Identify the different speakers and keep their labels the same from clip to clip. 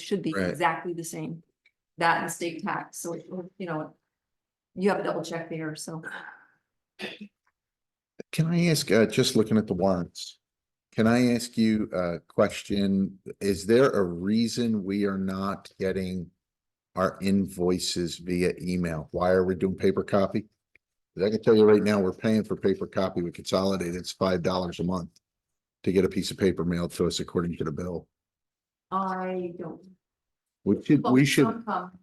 Speaker 1: should be
Speaker 2: Right.
Speaker 1: exactly the same. That and state tax, so, it- you know, you have a double check there, so.
Speaker 2: Can I ask, uh, just looking at the warrants, can I ask you a question? Is there a reason we are not getting our invoices via email? Why are we doing paper copy? 'Cause I can tell you right now, we're paying for paper copy with Consolidated. It's five dollars a month to get a piece of paper mailed to us according to the bill.
Speaker 1: I don't.
Speaker 2: We should,
Speaker 1: well,
Speaker 2: we
Speaker 1: some
Speaker 2: should,
Speaker 1: come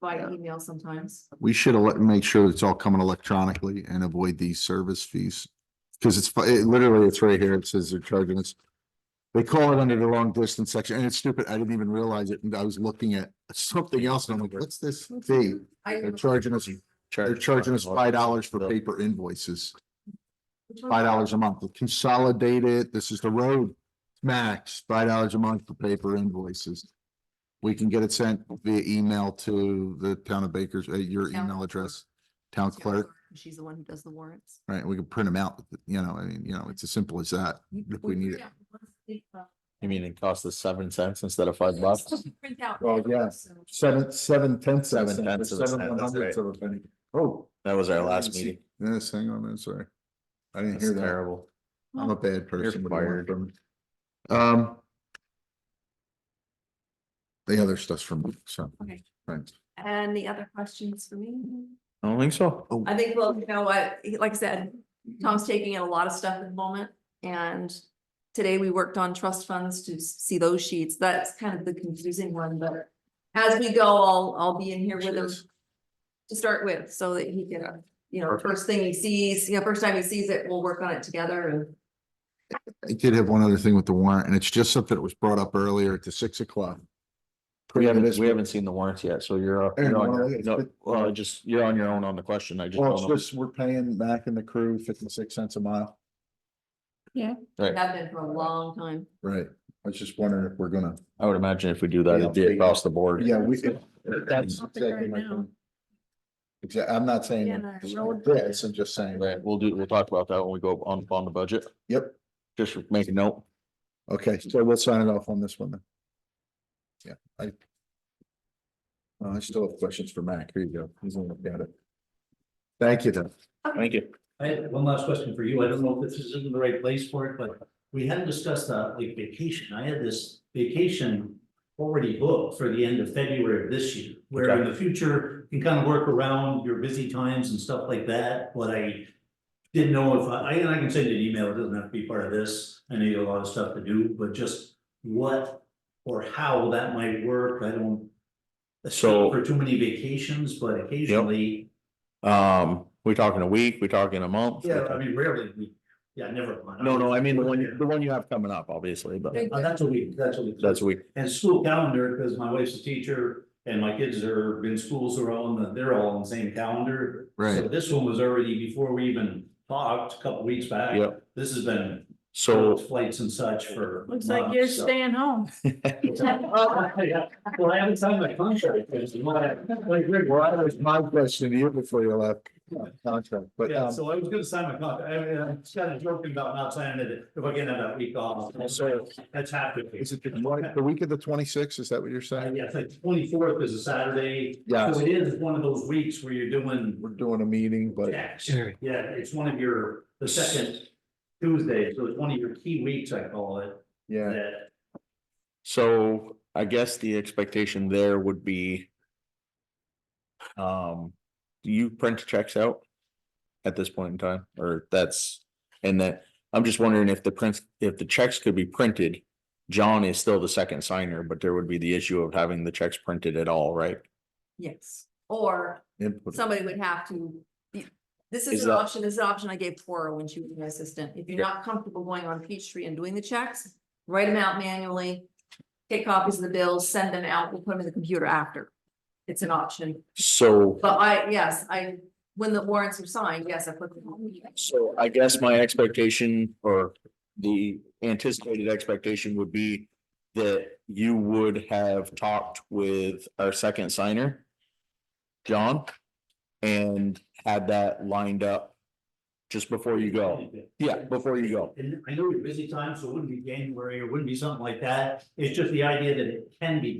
Speaker 1: By email sometimes.
Speaker 2: we should ele- make sure it's all coming electronically and avoid these service fees. Because it's, fi- it literally, it's right here. It says they're charging us. They call it under the long distance section and it's stupid. I didn't even realize it. And I was looking at something else and I'm like, what's this fee?
Speaker 1: I
Speaker 2: They're charging us, they're charging us five dollars for paper invoices,
Speaker 1: which one-
Speaker 2: five dollars a month. Consolidated, this is the road. Max, five dollars a month for paper invoices. We can get it sent via email to the town of Baker's, uh, your
Speaker 1: Town
Speaker 2: email
Speaker 1: clerk.
Speaker 2: address, town clerk.
Speaker 1: She's the one who does the warrants.
Speaker 2: Right, we can print them out, you know, I mean, you know, it's as simple as that, if we need it.
Speaker 1: Yeah, once they, uh,
Speaker 3: You mean it costs us seven cents instead of five bucks?
Speaker 1: Print out.
Speaker 2: Well, yeah.
Speaker 1: so-
Speaker 2: Seven, seven tenths.
Speaker 3: of a Seven cent, tenths of a seven cent, one that's hundredths
Speaker 2: of a penny. Oh.
Speaker 3: That was our last
Speaker 2: See-
Speaker 3: meeting.
Speaker 2: Yes, hang on, I'm sorry. I didn't
Speaker 3: That's
Speaker 2: hear that.
Speaker 3: terrible.
Speaker 2: I'm a bad person. What do you want
Speaker 3: fired.
Speaker 2: from me? Um. The other stuff's from, me, so,
Speaker 1: Okay.
Speaker 2: thanks.
Speaker 1: Any other questions for me?
Speaker 3: I don't think so.
Speaker 2: Oh,
Speaker 1: I think, well, you know what, he- like I said, Tom's taking in a lot of stuff at the moment and today we worked on trust funds to s- see those sheets. That's kind of the confusing one, but as we go, I'll, I'll be in here with him
Speaker 2: Cheers.
Speaker 1: to start with, so that he can, uh, you know, first thing he sees, you know, first time he sees it, we'll work on it together and
Speaker 2: I did have one other thing with the warrant, and it's just something that was brought up earlier at the six o'clock.
Speaker 3: We haven't, we haven't seen the warrants yet, so you're, up-
Speaker 2: Aaron,
Speaker 3: you're on
Speaker 2: why don't
Speaker 3: your-
Speaker 2: we-
Speaker 3: no, well, just, you're on your own on the question. I just
Speaker 2: Well, it's
Speaker 3: don't know.
Speaker 2: just, we're paying Mac and the crew fifty-six cents a mile.
Speaker 3: Right.
Speaker 1: have been for a long time.
Speaker 2: Right. I was just wondering if we're gonna.
Speaker 3: I would imagine if we do that, it'd be
Speaker 2: Yeah.
Speaker 3: across the board.
Speaker 2: Yeah, we.
Speaker 3: That's
Speaker 2: Exactly. my point. Exa- I'm not saying
Speaker 1: Yeah,
Speaker 2: that
Speaker 1: the
Speaker 2: it's
Speaker 1: road-
Speaker 2: this, I'm just saying,
Speaker 3: Right, we'll do, we'll talk about that when we go on, on the budget.
Speaker 2: yep,
Speaker 3: Just make a note.
Speaker 2: okay, so we'll sign it off on this one then. Yeah, I. Uh, I still have questions for Mac, here you go, he's gonna look at it. Thank you though.
Speaker 3: Thank you.
Speaker 4: I have one last question for you. I don't know if this is in the right place for it, but we hadn't discussed uh like vacation. I had this vacation. Already booked for the end of February of this year, where in the future you can kind of work around your busy times and stuff like that, but I. Didn't know if I, and I can send you an email. It doesn't have to be part of this. I know you have a lot of stuff to do, but just what or how that might work, I don't.
Speaker 3: So-
Speaker 4: For too many vacations, but occasionally.
Speaker 3: Um, we talking a week, we talking a month?
Speaker 4: Yeah, I mean, rarely, we, yeah, never. mind.
Speaker 3: No, no, I mean, the one, you- the one you have coming up, obviously, but
Speaker 4: Uh, That's a week, that's a week.
Speaker 3: that's a week.
Speaker 4: And school calendar, because my wife's a teacher and my kids are in schools are all in the, they're all on the same calendar. So
Speaker 2: Right.
Speaker 4: this one was already before we even talked, a couple weeks back.
Speaker 3: Yep.
Speaker 4: This has been
Speaker 3: So
Speaker 4: flights and such for.
Speaker 5: Looks like you're
Speaker 4: months, so.
Speaker 5: staying home.
Speaker 4: Oh, yeah. Well, I haven't signed my contract, because you want
Speaker 2: Well, that was my question to you before you left. Contract, but
Speaker 4: Yeah,
Speaker 2: um,
Speaker 4: so I was gonna sign my contract, I mean, I'm just kind of joking about not signing it, if I can have that week off, so that's happening.
Speaker 2: is it the twen- the week of the twenty-sixth, is that what you're
Speaker 4: Uh,
Speaker 2: saying?
Speaker 4: yeah, it's like twenty-fourth is a Saturday,
Speaker 2: Yeah,
Speaker 4: so it is one of those weeks where you're doing
Speaker 2: we're doing a meeting, but.
Speaker 4: tax. Yeah, it's one of your, the second Tuesday, so it's one of your key weeks, I call it,
Speaker 2: Yeah,
Speaker 4: that,
Speaker 3: So I guess the expectation there would be. Um, do you print checks out? At this point in time, or that's, and that, I'm just wondering if the prints, if the checks could be printed. John is still the second signer, but there would be the issue of having the checks printed at all, right?
Speaker 1: Yes, or
Speaker 2: input.
Speaker 1: somebody would have to. be- This
Speaker 3: Is
Speaker 1: is an
Speaker 3: that-
Speaker 1: option, this is an option I gave Cora when she was my assistant. If you're
Speaker 3: Yeah.
Speaker 1: not comfortable going on Peachtree and doing the checks, write them out manually. Take copies of the bills, send them out, we'll put them in the computer after. It's an option,
Speaker 3: So,
Speaker 1: but I, yes, I, when the warrants are signed, yes, I put them.
Speaker 3: so I guess my expectation or the anticipated expectation would be. That you would have talked with our second signer. John. And had that lined up. Just before you go, yeah, before you go,
Speaker 4: And I know your busy time, so it wouldn't be January, or wouldn't be something like that, it's just the idea that it can be